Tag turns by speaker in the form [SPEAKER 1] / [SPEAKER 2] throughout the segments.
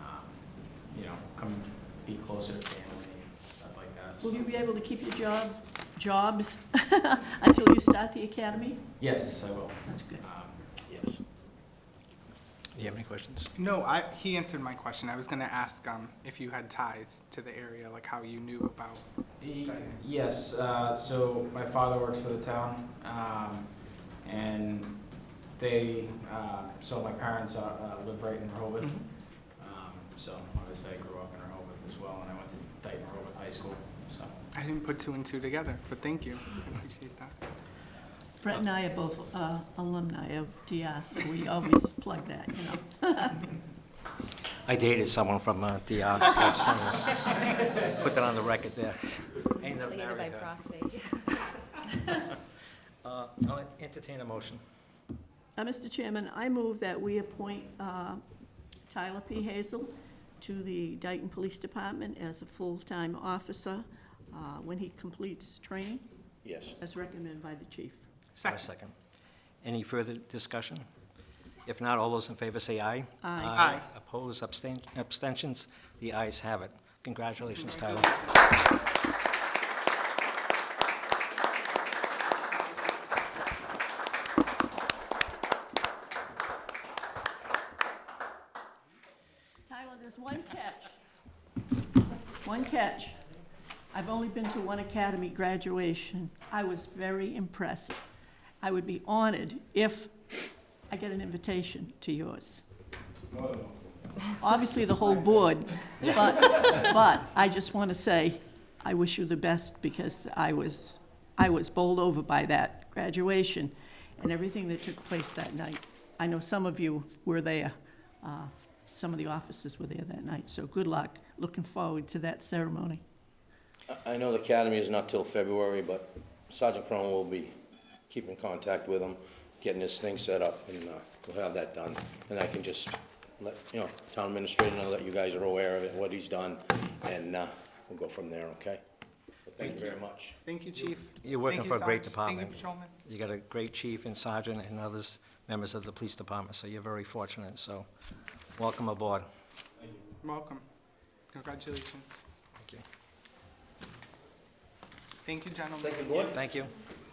[SPEAKER 1] Um, you know, come be closer to family and stuff like that.
[SPEAKER 2] Will you be able to keep your job, jobs until you start the academy?
[SPEAKER 1] Yes, I will.
[SPEAKER 2] That's good.
[SPEAKER 1] Um,
[SPEAKER 3] Yes. Do you have any questions?
[SPEAKER 4] No, I, he answered my question. I was gonna ask, um, if you had ties to the area, like how you knew about.
[SPEAKER 1] E- Yes, uh, so my father works for the town, um, and they, uh, so my parents, uh, uh, live right in Rehoboth.
[SPEAKER 4] Mhm.
[SPEAKER 2] Mm-hmm.
[SPEAKER 1] Um, so obviously I grew up in Rehoboth as well, and I went to Dayton Rehoboth High School, so.
[SPEAKER 4] I didn't put two and two together, but thank you. I appreciate that.
[SPEAKER 2] Brett and I are both uh, alumni of DR, so we always plug that, you know.
[SPEAKER 3] I dated someone from uh, the arts. so I just wanna Put that on the record there. Ain't that
[SPEAKER 5] Probably either by
[SPEAKER 3] married her.
[SPEAKER 5] proxy.
[SPEAKER 3] Uh, I'll entertain a motion.
[SPEAKER 2] Uh, Mr. Chairman, I move that we appoint uh, Tyler P. Hazel to the Dayton Police Department as a full-time officer uh, when he completes training,
[SPEAKER 6] Yes.
[SPEAKER 2] as recommended by the chief.
[SPEAKER 3] Have a second. Any further discussion? If not, all those in favor say aye.
[SPEAKER 2] Uh,
[SPEAKER 4] Aye.
[SPEAKER 3] Opposed, abstain- abstentions? The ayes have it. Congratulations, Tyler.
[SPEAKER 2] Tyler, there's one catch. One catch. I've only been to one academy graduation. I was very impressed. I would be honored if I get an invitation to yours. Obviously, the whole board, but, but I just want to say, I wish you the best because I was, I was bowled over by that graduation and everything that took place that night. I know some of you were there. Uh, some of the officers were there that night, so good luck. Looking forward to that ceremony.
[SPEAKER 6] I- I know the academy is not till February, but Sergeant Cronin will be keeping contact with him, getting his thing set up, and uh, we'll have that done. And I can just let, you know, town administrator know that you guys are aware of it, what he's done, and uh, we'll go from there, okay? But Thank you very much.
[SPEAKER 4] Thank you, chief.
[SPEAKER 3] You're working
[SPEAKER 4] Thank
[SPEAKER 3] for
[SPEAKER 4] you,
[SPEAKER 3] a great
[SPEAKER 4] Sarge. Thank you,
[SPEAKER 3] department.
[SPEAKER 4] patrolman.
[SPEAKER 3] You got a great chief and sergeant and others, members of the police department, so you're very fortunate, so welcome aboard.
[SPEAKER 4] Welcome. Congratulations.
[SPEAKER 3] Thank you.
[SPEAKER 4] Thank you, gentlemen.
[SPEAKER 3] Thank you,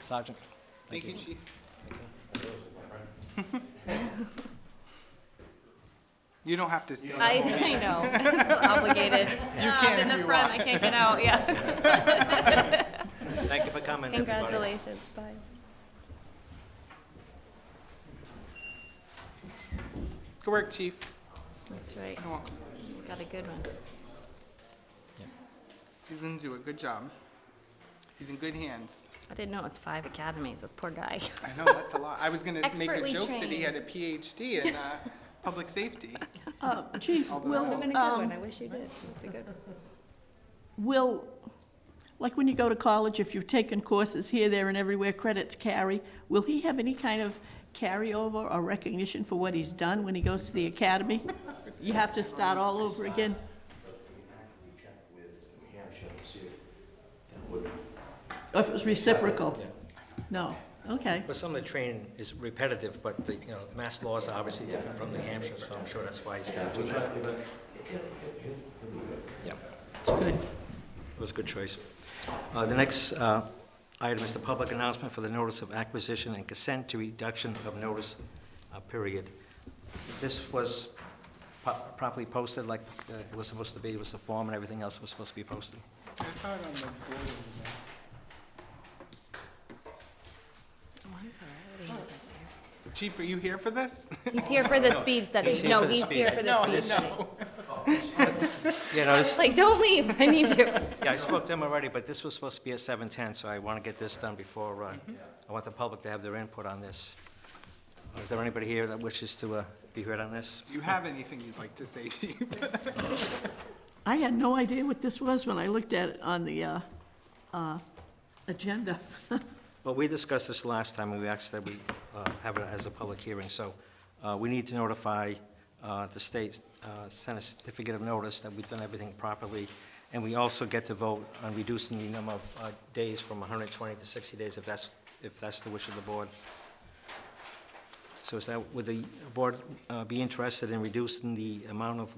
[SPEAKER 3] Sergeant.
[SPEAKER 4] Thank you, chief. You don't have to stay.
[SPEAKER 5] I, I know, it's obligated.
[SPEAKER 4] can
[SPEAKER 5] I'm in
[SPEAKER 4] if
[SPEAKER 5] the
[SPEAKER 4] you
[SPEAKER 5] front, I can't get out, yeah.
[SPEAKER 3] Thank you for coming, everybody.
[SPEAKER 5] Congratulations, bye.
[SPEAKER 4] Good work, chief.
[SPEAKER 5] That's right, Oh,
[SPEAKER 4] You're welcome.
[SPEAKER 5] got a good one.
[SPEAKER 4] He's gonna do a good job. He's in good hands.
[SPEAKER 5] I didn't know it was five academies, this poor guy.
[SPEAKER 4] I know, that's a lot. I was gonna make a
[SPEAKER 5] Expertly
[SPEAKER 4] joke that he
[SPEAKER 5] trained.
[SPEAKER 4] had a PhD in, uh, public safety.
[SPEAKER 2] Uh, Chief,
[SPEAKER 5] Well, have been a
[SPEAKER 2] will,
[SPEAKER 5] good
[SPEAKER 2] um,
[SPEAKER 5] one, I wish you did, that's a good one.
[SPEAKER 2] will, like when you go to college, if you've taken courses here, there, and everywhere, credits carry, will he have any kind of carryover or recognition for what he's done when he goes to the academy? You have to start all over again? Or if it was reciprocal? No, okay.
[SPEAKER 3] But some of the training is repetitive, but the, you know, mass laws are obviously different from New Hampshire, so I'm sure that's why he's gonna do that. Yeah,
[SPEAKER 2] It's good.
[SPEAKER 3] it was a good choice. Uh, the next, uh, item is the public announcement for the notice of acquisition and consent to reduction of notice, uh, period. This was po- properly posted like uh, it was supposed to be, it was the form and everything else was supposed to be posted.
[SPEAKER 4] I saw it on the board.
[SPEAKER 5] Mine's all right, Oh, I didn't get that
[SPEAKER 4] Chief, are you here for this?
[SPEAKER 5] too. He's here for the speed study,
[SPEAKER 3] here
[SPEAKER 5] no,
[SPEAKER 3] for the
[SPEAKER 5] he's
[SPEAKER 3] speed.
[SPEAKER 5] here for the speed study.
[SPEAKER 3] Yeah, no, this,
[SPEAKER 5] It's like, don't leave, I need you.
[SPEAKER 3] yeah, I spoke to him already, but this was supposed to be at seven ten, so I wanna get this done before, uh, I want the public to have their input on this. Is there anybody here that wishes to, uh, be heard on this?
[SPEAKER 4] Do you have anything you'd like to say, chief?
[SPEAKER 2] I had no idea what this was when I looked at it on the uh, uh, agenda.
[SPEAKER 3] Well, we discussed this last time, and we asked that we uh, have it as a public hearing, so uh, we need to notify uh, the state, uh, send a certificate of notice that we've done everything properly, and we also get to vote on reducing the number of uh, days from 120 to 60 days, if that's, if that's the wish of the board. So is that, would the board uh, be interested in reducing the amount of